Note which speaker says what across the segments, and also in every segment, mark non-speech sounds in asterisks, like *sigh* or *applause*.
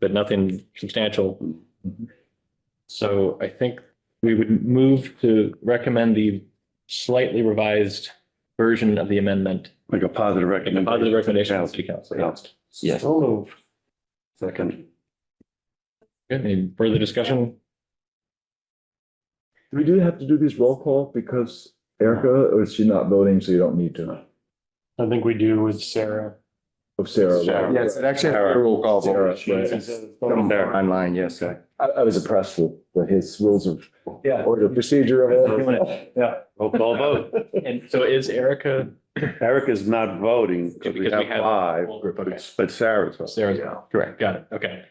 Speaker 1: but nothing substantial. So I think we would move to recommend the slightly revised version of the amendment.
Speaker 2: Like a positive
Speaker 1: Make a positive
Speaker 2: recommendation.
Speaker 1: recommendation to the city council.
Speaker 2: Yeah.
Speaker 3: Yes.
Speaker 2: So move. Second.
Speaker 1: Good. Any further discussion?
Speaker 4: Do we do have to do these roll call because Erica, or is she not voting, so you don't need to?
Speaker 5: I think we do with Sarah.
Speaker 4: Of Sarah. right?
Speaker 2: Sarah.
Speaker 3: Yes, it actually has a roll call
Speaker 4: Sarah,
Speaker 3: vote.
Speaker 4: right.
Speaker 2: Come there online, yes, sir.
Speaker 4: I, I was impressed with the- his rules of order procedure. of it.
Speaker 2: Roll call vote.
Speaker 1: *laughs* And so is Erica?
Speaker 2: Eric is not voting because we
Speaker 1: Because we
Speaker 2: have
Speaker 1: have-
Speaker 2: five,
Speaker 1: Okay.
Speaker 2: but Sarah's voting.
Speaker 1: Sarah's, correct, got it, okay.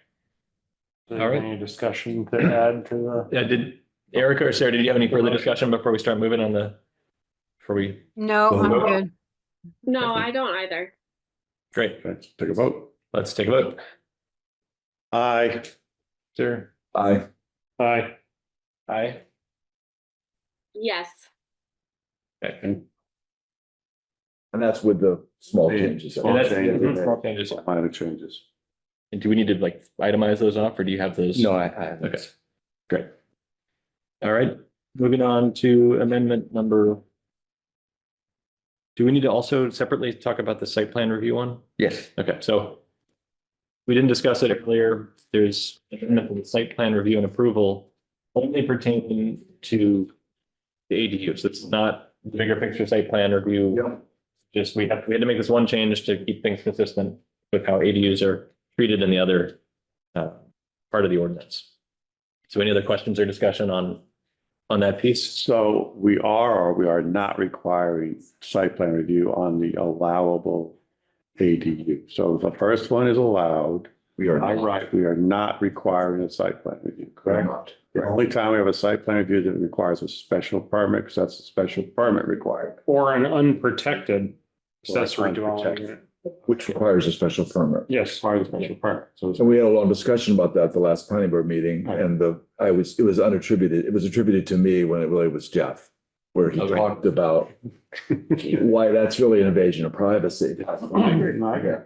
Speaker 1: All right.
Speaker 5: Any discussion to add to the?
Speaker 1: Yeah, did Erica or Sarah, did you have any further discussion before we start moving on the? Before we,
Speaker 6: No, I'm
Speaker 1: Well,
Speaker 6: good.
Speaker 7: No,
Speaker 1: Definitely.
Speaker 7: I don't either.
Speaker 1: great,
Speaker 2: Let's take a vote.
Speaker 1: let's take a vote.
Speaker 2: Aye.
Speaker 1: Sarah?
Speaker 4: Aye.
Speaker 5: Aye.
Speaker 1: Aye.
Speaker 7: Yes,
Speaker 1: Okay.
Speaker 4: And that's with the small
Speaker 2: Yeah.
Speaker 4: changes.
Speaker 1: And
Speaker 2: Small
Speaker 1: that's, Mhm,
Speaker 2: changes.
Speaker 3: Mm-hmm.
Speaker 1: small changes.
Speaker 2: Minor changes.
Speaker 1: And do we need to like itemize those off or do you have those?
Speaker 3: No, I, I.
Speaker 1: Okay, great. All right, moving on to amendment number. Do we need to also separately talk about the site plan review one?
Speaker 3: Yes,
Speaker 1: Okay, so we didn't discuss it earlier. There's an amendment for the site plan review and approval only pertaining to the ADUs. It's not the bigger picture site plan review.
Speaker 4: Yeah.
Speaker 1: Just we have, we had to make this one change to keep things consistent with how ADUs are treated in the other uh, part of the ordinance. So any other questions or discussion on, on that piece?
Speaker 2: So we are or we are not requiring site plan review on the allowable ADU. So the first one is allowed.
Speaker 4: We are
Speaker 2: By
Speaker 4: not.
Speaker 2: right, we are not requiring a site plan review, correct? The only time we have a site plan review that requires a special permit, because that's a special permit required.
Speaker 5: Or an unprotected accessory dwelling.
Speaker 2: Unprotected.
Speaker 5: unit.
Speaker 4: Which requires a special permit.
Speaker 5: Yes.
Speaker 2: Requires a special permit. So
Speaker 4: *laughs*
Speaker 2: it's-
Speaker 4: And we had a long discussion about that at the last planning board meeting
Speaker 2: Right.
Speaker 4: and the, I was, it was unattributed, it was attributed to me when it really was Jeff. Where he
Speaker 1: Okay.
Speaker 4: talked about why that's really an invasion of privacy.
Speaker 2: Yeah,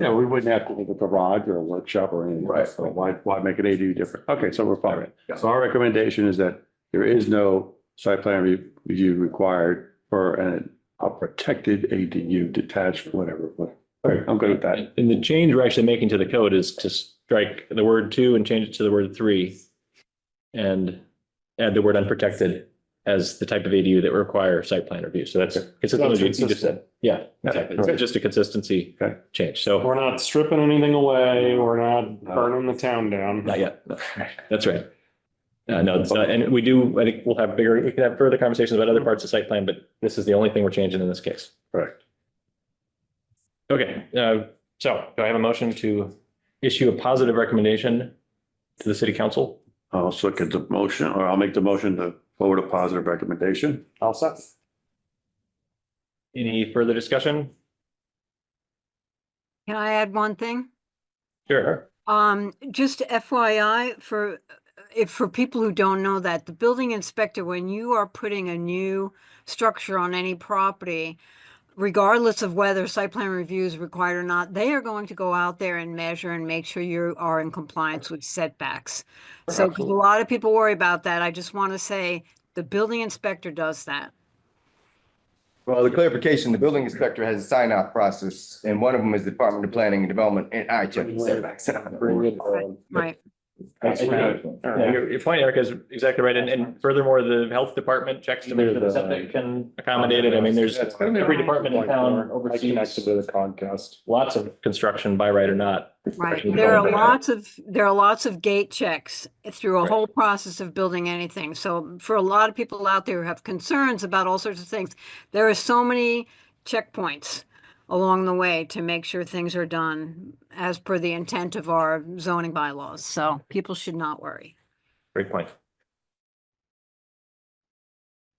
Speaker 2: Yeah, we wouldn't have to leave a garage or a workshop or anything.
Speaker 4: Right.
Speaker 2: So why, why make an ADU different? Okay, so we're fine.
Speaker 4: Yeah.
Speaker 2: So our recommendation is that there is no site plan re- review required for an, a protected ADU detached, whatever. but- All right, I'm good with that.
Speaker 1: And the change we're actually making to the code is to strike the word two and change it to the word three. And add the word unprotected as the type of ADU that require site plan review. So that's consistent with what you just said. Yeah, exactly. It's just a consistency
Speaker 2: Okay.
Speaker 1: change. So
Speaker 5: We're not stripping anything away. We're not burning the town down.
Speaker 1: not yet. That's right. Uh, no, it's not. And we do, I think we'll have bigger, we can have further conversations about other parts of site plan, but this is the only thing we're changing in this case.
Speaker 2: Correct.
Speaker 1: Okay, uh, so do I have a motion to issue a positive recommendation to the city council?
Speaker 2: I'll also get the motion, or I'll make the motion to forward a positive recommendation.
Speaker 5: All set.
Speaker 1: Any further discussion?
Speaker 6: Can I add one thing?
Speaker 1: Sure.
Speaker 6: Um, just FYI for, if, for people who don't know that, the building inspector, when you are putting a new structure on any property, regardless of whether site plan review is required or not, they are going to go out there and measure and make sure you are in compliance with setbacks. So 'cause a
Speaker 1: Absolutely.
Speaker 6: lot of people worry about that. I just want to say the building inspector does that.
Speaker 3: well, the clarification, the building inspector has a sign off process and one of them is Department of Planning and Development and I check the setbacks.
Speaker 6: Right.
Speaker 1: That's right. Yeah, Your your point, Erica, is exactly right. And, and furthermore, the health department checks to make sure the septic can accommodate it. I mean, there's every department in town oversees
Speaker 5: the Comcast.
Speaker 1: lots of construction by right or not.
Speaker 6: Right,
Speaker 1: Professional
Speaker 6: there are
Speaker 1: development.
Speaker 6: lots of, there are lots of gate checks through a
Speaker 1: Right.
Speaker 6: whole process of building anything. So for a lot of people out there who have concerns about all sorts of things, there are so many checkpoints along the way to make sure things are done as per the intent of our zoning bylaws. So people should not worry.
Speaker 1: Great point.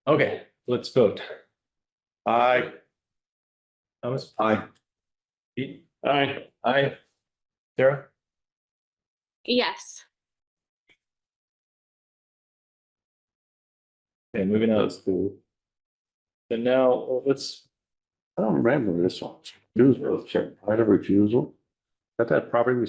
Speaker 1: Okay, let's vote.
Speaker 2: Aye.
Speaker 1: Thomas?
Speaker 4: Aye.
Speaker 1: Pete?
Speaker 5: Aye.
Speaker 1: Aye. Sarah?
Speaker 7: yes.
Speaker 1: Okay, moving on. So now let's,
Speaker 2: I don't remember this one. Refusal, right of refusal. That that property we